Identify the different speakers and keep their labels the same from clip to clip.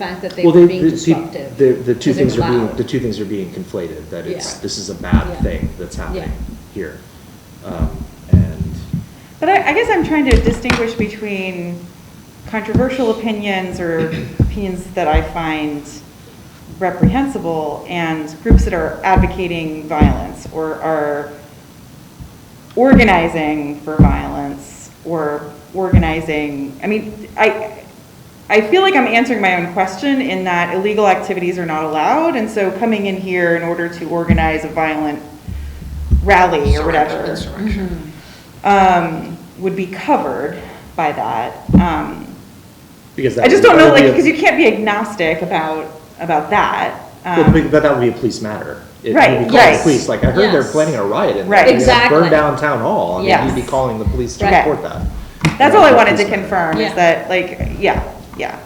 Speaker 1: fact that they
Speaker 2: Well,
Speaker 1: were
Speaker 2: they,
Speaker 1: being
Speaker 2: the- see,
Speaker 1: disruptive.
Speaker 2: the, the two
Speaker 1: 'cause they
Speaker 2: things
Speaker 1: were
Speaker 2: are being,
Speaker 1: loud.
Speaker 2: the two things are being conflated, that it's,
Speaker 1: Yeah.
Speaker 2: this is a
Speaker 1: Yeah.
Speaker 2: bad thing that's happening here. Um, And,
Speaker 3: But I, I guess I'm trying to distinguish between controversial opinions or opinions that I find reprehensible and groups that are advocating violence or are organizing for violence or organizing, I mean, I, I feel like I'm answering my own question in that illegal activities are not allowed, and so coming in here in order to organize a violent rally or whatever. um, would be covered by that. Um,
Speaker 2: because that.
Speaker 3: I just don't
Speaker 2: that
Speaker 3: know,
Speaker 2: would be
Speaker 3: like,
Speaker 2: a-
Speaker 3: because you can't be agnotic about, about that.
Speaker 2: Well, be-
Speaker 3: Um,
Speaker 2: but that would be a police matter. It-
Speaker 3: Right,
Speaker 2: You'd be calling
Speaker 3: yes.
Speaker 2: the police, like, I heard
Speaker 1: Yes.
Speaker 2: they're planning a riot and
Speaker 3: Right.
Speaker 2: they're gonna
Speaker 1: Exactly.
Speaker 2: burn down town hall. I mean,
Speaker 3: Yes.
Speaker 2: you'd be calling the police to
Speaker 3: Right.
Speaker 2: report that.
Speaker 3: That's
Speaker 2: Yeah,
Speaker 3: all I
Speaker 2: it's a
Speaker 3: wanted to
Speaker 2: police matter.
Speaker 3: confirm,
Speaker 1: Yeah.
Speaker 3: is that, like, yeah, yeah.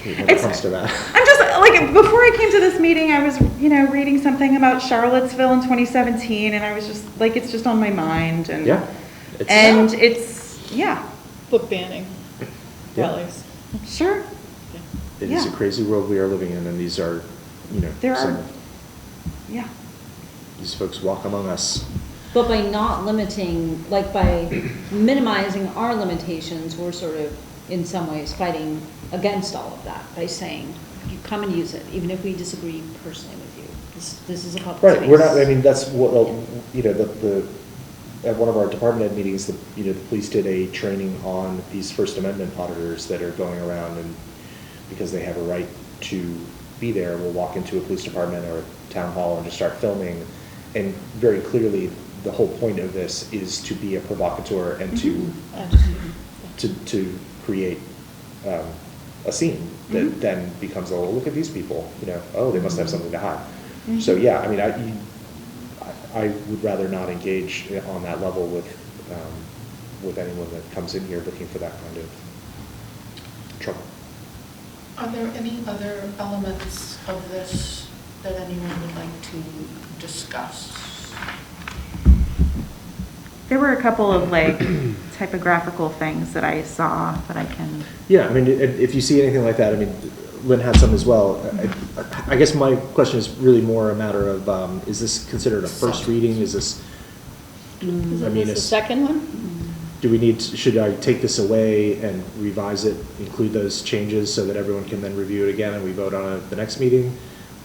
Speaker 2: Okay, when it
Speaker 3: It's-
Speaker 2: comes to that.
Speaker 3: I'm just, like, before I came to this meeting, I was, you know, reading something about Charlottesville in 2017, and I was just, like, it's just on my mind, and.
Speaker 2: Yeah. It's-
Speaker 3: And it's, yeah,
Speaker 4: Book banning
Speaker 2: Yeah.
Speaker 4: rallies.
Speaker 3: sure,
Speaker 2: It is a
Speaker 3: yeah.
Speaker 2: crazy world we are living in and these are, you know,
Speaker 3: There
Speaker 2: some
Speaker 3: are-
Speaker 2: of
Speaker 3: yeah.
Speaker 2: these folks walk among us.
Speaker 1: But by not limiting, like by minimizing our limitations, we're sort of, in some ways, fighting against all of that by saying, you come and use it, even if we disagree personally with you. This, this is a public space.
Speaker 2: Right, we're not, I mean, that's what, uh, you know, the, the, at one of our department head meetings, the, you know, the police did a training on these First Amendment auditors that are going around and, because they have a right to be there, will walk into a police department or a town hall and just start filming. And very clearly, the whole point of this is to be a provocateur and to, to, to create, um, a scene that then becomes, oh, look at these people, you know, oh, they must have something to hide. So, yeah, I mean, I, you- I- I would rather not engage on that level with, um, with anyone that comes in here looking for that kind of trouble.
Speaker 5: Are there any other elements of this that anyone would like to discuss?
Speaker 3: There were a couple of, like, typographical things that I saw, but I can.
Speaker 2: Yeah, I mean, if, if you see anything like that, I mean, Lynn had some as well. I- I guess my question is really more a matter of, um, is this considered a first reading? Is this,
Speaker 4: Is
Speaker 2: I
Speaker 4: it
Speaker 2: mean,
Speaker 4: the
Speaker 2: it's-
Speaker 4: second one?
Speaker 2: do we need, to- should I take this away and revise it, include those changes so that everyone can then review it again and we vote on it at the next meeting?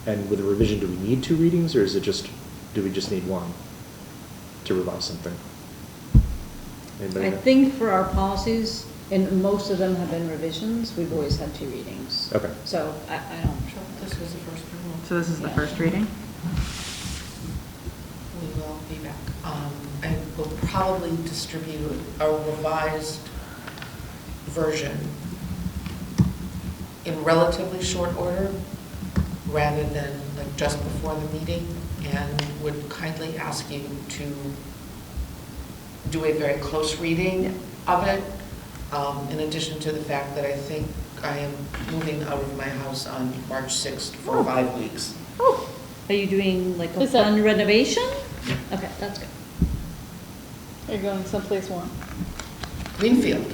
Speaker 2: And with a revision, do we need two readings or is it just, do we just need one to revise something? Anybody
Speaker 1: I
Speaker 2: know?
Speaker 1: think for our policies, and most of them have been revisions, we've always had two readings.
Speaker 2: Okay.
Speaker 1: So I, I don't.
Speaker 5: Sure, this is the first one.
Speaker 3: So this is the first reading?
Speaker 5: We will be back. Um, I will probably distribute a revised version in relatively short order, rather than like just before the meeting, and would kindly ask you to do a very close reading of it, um, in addition to the fact that I think I am moving out of my house on March 6th for five weeks.
Speaker 1: Oh, are you doing like a
Speaker 4: Is that-
Speaker 1: fun renovation? Okay, that's good.
Speaker 4: You're going someplace warm.
Speaker 5: Greenfield.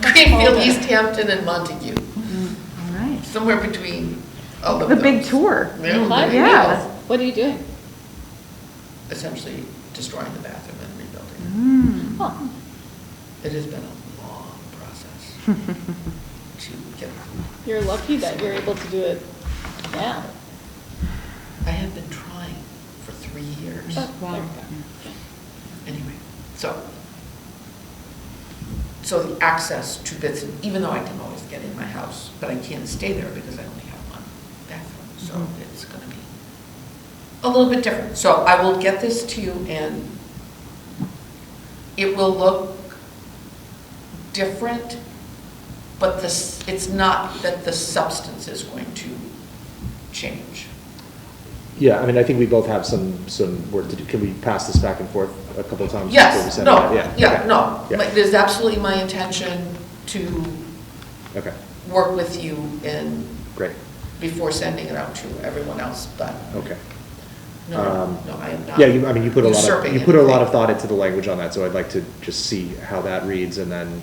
Speaker 5: Greenfield, East Hampton, and Montague,
Speaker 3: All right.
Speaker 5: somewhere between all of
Speaker 3: The
Speaker 5: those.
Speaker 3: big tour.
Speaker 5: Yeah.
Speaker 4: Hi,
Speaker 3: Yeah.
Speaker 4: Nichols. What are you doing?
Speaker 5: Essentially destroying the bathroom and
Speaker 3: Mm.
Speaker 5: rebuilding
Speaker 4: Oh,
Speaker 5: it. It has been a long process to get,
Speaker 4: You're lucky that you're able to do it now.
Speaker 5: I have been trying for three years.
Speaker 4: Oh,
Speaker 1: Wow.
Speaker 4: there we go. Okay.
Speaker 5: Anyway, so, so the access to bits, and- even though I can always get in my house, but I can't stay there because I only have one bathroom, so it's gonna be a little bit different. So I will get this to you and it will look different, but this, it's not that the substance is going to change.
Speaker 2: Yeah, I mean, I think we both have some, some work to do. Can we pass this back and forth a couple of times? before we
Speaker 5: Yes,
Speaker 2: send it
Speaker 5: no,
Speaker 2: out?
Speaker 5: yeah,
Speaker 2: okay.
Speaker 5: no,
Speaker 2: Yeah,
Speaker 5: Like, it is absolutely my intention to
Speaker 2: Okay,
Speaker 5: work with you in,
Speaker 2: great,
Speaker 5: before sending it out to everyone else, but
Speaker 2: okay.
Speaker 5: no,
Speaker 2: Um,
Speaker 5: no, no, I am not.
Speaker 2: Yeah, you, I mean, you put a lot of,
Speaker 5: usurping
Speaker 2: you put a lot
Speaker 5: anything.
Speaker 2: of thought into the language on that, so I'd like to just see how that reads and then